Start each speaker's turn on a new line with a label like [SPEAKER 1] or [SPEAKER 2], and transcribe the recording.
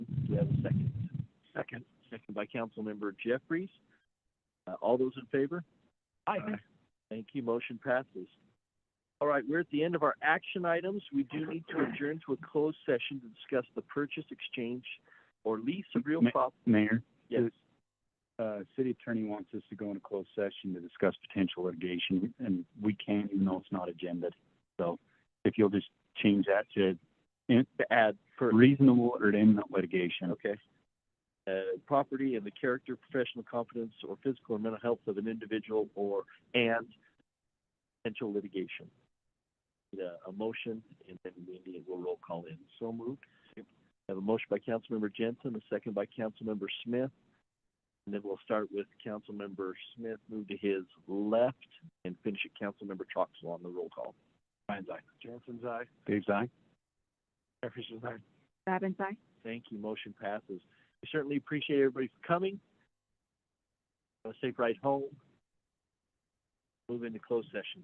[SPEAKER 1] have a second?
[SPEAKER 2] Second.
[SPEAKER 1] Second by Councilmember Jeffries. Uh, all those in favor?
[SPEAKER 2] Aye.
[SPEAKER 1] Thank you, motion passes. All right, we're at the end of our action items. We do need to adjourn to a closed session to discuss the purchase, exchange, or lease of real
[SPEAKER 2] Ma-
[SPEAKER 1] property.
[SPEAKER 2] Mayor,
[SPEAKER 1] Yes,
[SPEAKER 2] uh, city attorney wants us to go into closed session to discuss potential litigation, and we can, even though it's not agenda. So if you'll just change that to in-
[SPEAKER 1] to add per,
[SPEAKER 2] reasonable or imminent litigation.
[SPEAKER 1] okay. Uh, property and the character, professional competence, or physical or mental health of an individual or, and potential litigation. Need A, a motion, and then we need, we'll roll call in. So moved. Have a motion by Councilmember Jensen, a second by Councilmember Smith. And then we'll start with Councilmember Smith, move to his left, and finish at Councilmember Troxel on the roll call. Ryan's aye. Jensen's aye.
[SPEAKER 2] Dave's aye?
[SPEAKER 1] Jefferson's aye.
[SPEAKER 3] Babin's aye.
[SPEAKER 1] Thank you. Motion passes. We certainly appreciate everybody for coming. Have a safe ride home. Move into closed session.